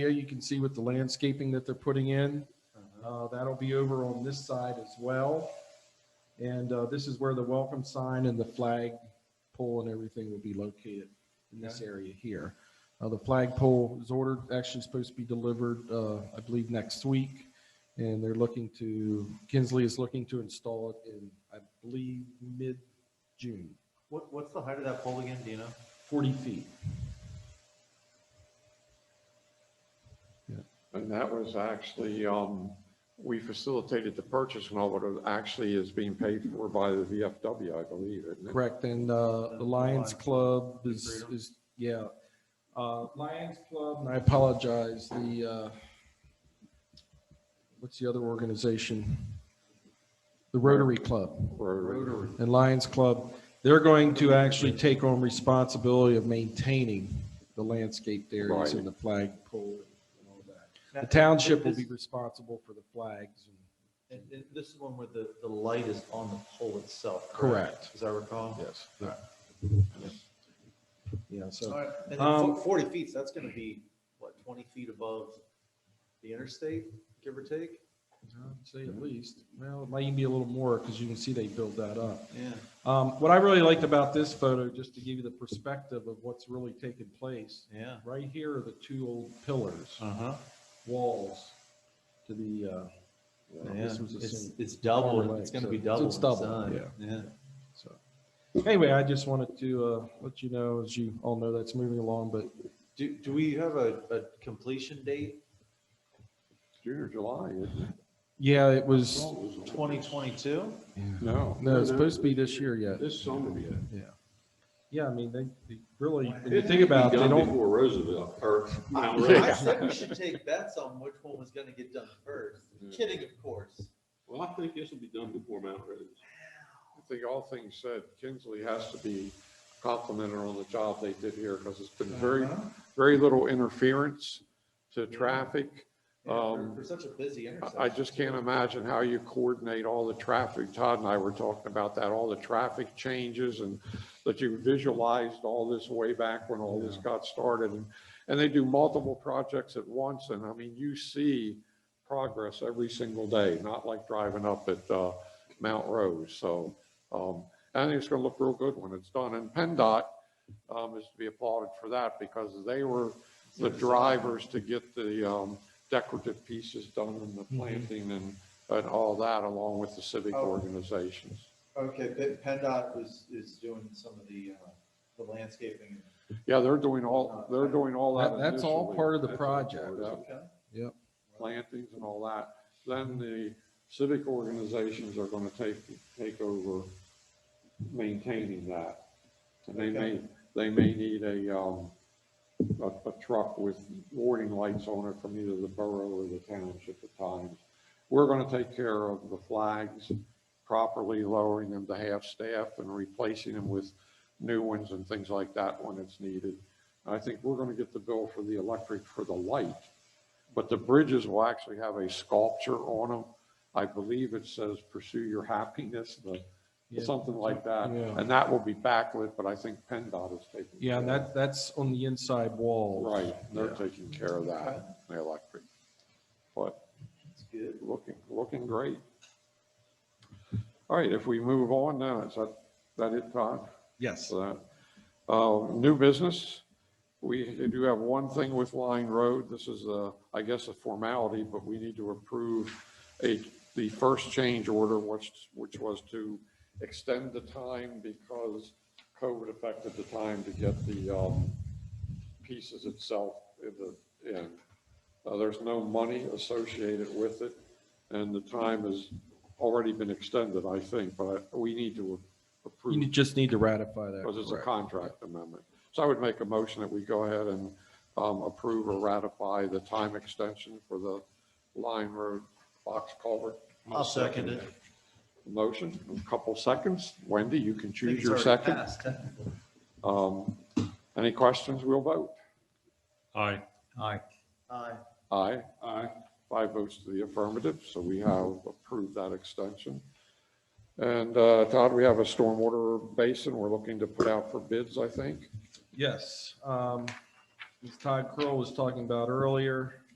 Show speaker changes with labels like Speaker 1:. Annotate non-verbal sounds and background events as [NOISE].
Speaker 1: Here you can see with the landscaping that they're putting in. Uh, That'll be over on this side as well. And uh, this is where the welcome sign and the flag pole and everything will be located in this area here. Uh, The flag pole is ordered, actually supposed to be delivered, uh, I believe, next week. And they're looking to, Kinsley is looking to install it in, I believe, mid-June,
Speaker 2: What, what's the height of that pole again, do you know?
Speaker 1: 40 feet.
Speaker 3: And that was actually, um, we facilitated the purchase and all, but it actually is being paid for by the VFW, I believe, isn't it?
Speaker 1: Correct, and uh, the Lions
Speaker 2: Lions
Speaker 1: Club is,
Speaker 2: Freedom.
Speaker 1: is, yeah. Uh, Lions Club, and I apologize, the, uh, what's the other organization? The Rotary Club
Speaker 3: Or-
Speaker 1: and Lions Club, they're going to actually take on responsibility of maintaining the landscaped areas
Speaker 3: Right.
Speaker 1: and the flag pole and all that.
Speaker 2: Now,
Speaker 1: The township will be
Speaker 2: this-
Speaker 1: responsible for the flags. and-
Speaker 2: and- and This is one where the, the light is on the pole itself,
Speaker 1: Correct.
Speaker 2: correct? As I recall.
Speaker 1: Yes.
Speaker 2: Right.
Speaker 1: Yeah,
Speaker 2: All
Speaker 1: so.
Speaker 2: right, and then
Speaker 1: Um,
Speaker 2: fo- forty feet, so that's gonna be, what, twenty feet above the interstate, give or take?
Speaker 1: I'd Say at least, well, it might even be a little more because you can see they build that up.
Speaker 2: Yeah.
Speaker 1: Um, What I really liked about this photo, just to give you the perspective of what's really taken place,
Speaker 2: Yeah.
Speaker 1: right here are the two old pillars,
Speaker 2: Uh-huh.
Speaker 1: walls to the, uh,
Speaker 2: Yeah,
Speaker 1: this was
Speaker 2: it's,
Speaker 1: assumed.
Speaker 2: it's double,
Speaker 1: Forward
Speaker 2: it's
Speaker 1: leg,
Speaker 2: gonna
Speaker 1: so
Speaker 2: be
Speaker 1: it's-
Speaker 2: double.
Speaker 1: it's
Speaker 2: in
Speaker 1: double,
Speaker 2: size.
Speaker 1: yeah.
Speaker 2: Yeah.
Speaker 1: so. Anyway, I just wanted to uh, let you know, as you all know, that's moving along, but
Speaker 2: Do, do we have a, a completion date?
Speaker 3: June or July, isn't it?
Speaker 1: yeah, it was,
Speaker 2: Twenty twenty-two?
Speaker 3: No.
Speaker 1: no, it's supposed to be this year yet.
Speaker 4: This summer, yeah.
Speaker 1: Yeah. Yeah, I mean, they they really, when you
Speaker 4: It
Speaker 1: think
Speaker 4: should be
Speaker 1: about it, they
Speaker 4: done
Speaker 1: don't,
Speaker 4: Before Roosevelt, or Mount
Speaker 2: [LAUGHS] I
Speaker 4: Rushmore.
Speaker 2: said we should take bets on which one was gonna get done first. Kidding, of course.
Speaker 4: Well, I think this will be done before Mount Rose.
Speaker 3: I think all things said, Kinsley has to be complimented on the job they did here because it's been very,
Speaker 2: Uh-huh.
Speaker 3: very little interference to traffic.
Speaker 2: Yeah, for,
Speaker 3: Um,
Speaker 2: for such a busy intersection.
Speaker 3: I I just can't imagine how you coordinate all the traffic. Todd and I were talking about that, all the traffic changes and that you visualized all this way back when all this got started. And- And they do multiple projects at once. And I mean, you see progress every single day, not like driving up at uh, Mount Rose. So um, I think it's going to look real good when it's done. And PennDOT um, is to be applauded for that because they were the drivers to get the um, decorative pieces done and
Speaker 1: Mm-hmm.
Speaker 3: the planting and, and all that along with the civic
Speaker 2: Oh.
Speaker 3: organizations.
Speaker 2: Okay, but PennDOT was, is doing some of the, uh, the landscaping.
Speaker 3: Yeah, they're doing all, they're doing all that
Speaker 1: That- that's all
Speaker 3: initially.
Speaker 1: part of the
Speaker 3: That's all part of
Speaker 1: project.
Speaker 3: that.
Speaker 2: Okay.
Speaker 3: plantings and all that, then the civic organizations are gonna take, take over maintaining that. And they may, they may need a, um, a, a truck with warning lights on it from either the borough or the township at times. We're gonna take care of the flags properly, lowering them to half-staff and replacing them with new ones and things like that when it's needed. I think we're gonna get the bill for the electric for the light, but the bridges will actually have a sculpture on them. I believe it says pursue your happiness, the-
Speaker 1: Yeah.
Speaker 3: something like that.
Speaker 1: Yeah.
Speaker 3: And that will be backlit, but I think PennDOT is taking.
Speaker 1: yeah, and
Speaker 3: care of
Speaker 1: that, that's on the inside
Speaker 3: it.
Speaker 1: walls.
Speaker 3: Right, they're taking care of
Speaker 2: Okay.
Speaker 3: that, the electric. But
Speaker 2: That's good.
Speaker 3: looking, looking great. All right, if we move on now, is that, that it, Todd?
Speaker 1: Yes.
Speaker 3: for that. Uh, New business, we do have one thing with Line Road. This is a, I guess, a formality, but we need to approve a, the first change order, which, which was to extend the time because COVID affected the time to get the um, pieces itself in the, in. Uh, There's no money associated with it, and the time has already been extended, I think, but I- we need to approve.
Speaker 1: You need- just need to ratify that.
Speaker 3: Because it's Oh, a
Speaker 1: correct.
Speaker 3: contract amendment. So I would make a motion that we go ahead and um, approve or ratify the time extension for the Line Road box culvert.
Speaker 2: I'll second it.
Speaker 3: Motion, a couple seconds. Wendy, you
Speaker 2: I
Speaker 3: can
Speaker 2: think
Speaker 3: choose
Speaker 2: it's
Speaker 3: your
Speaker 2: already
Speaker 3: second.
Speaker 2: passed, technically.
Speaker 3: Um, Any questions? We'll vote.
Speaker 5: Aye. Aye.
Speaker 2: Aye.
Speaker 3: Aye.
Speaker 4: Aye.
Speaker 3: Five votes to the affirmative, so we have approved that extension. And uh, Todd, we have a stormwater basin we're looking to put out for bids, I think.
Speaker 1: Yes. um, as Todd Kroll was talking about earlier,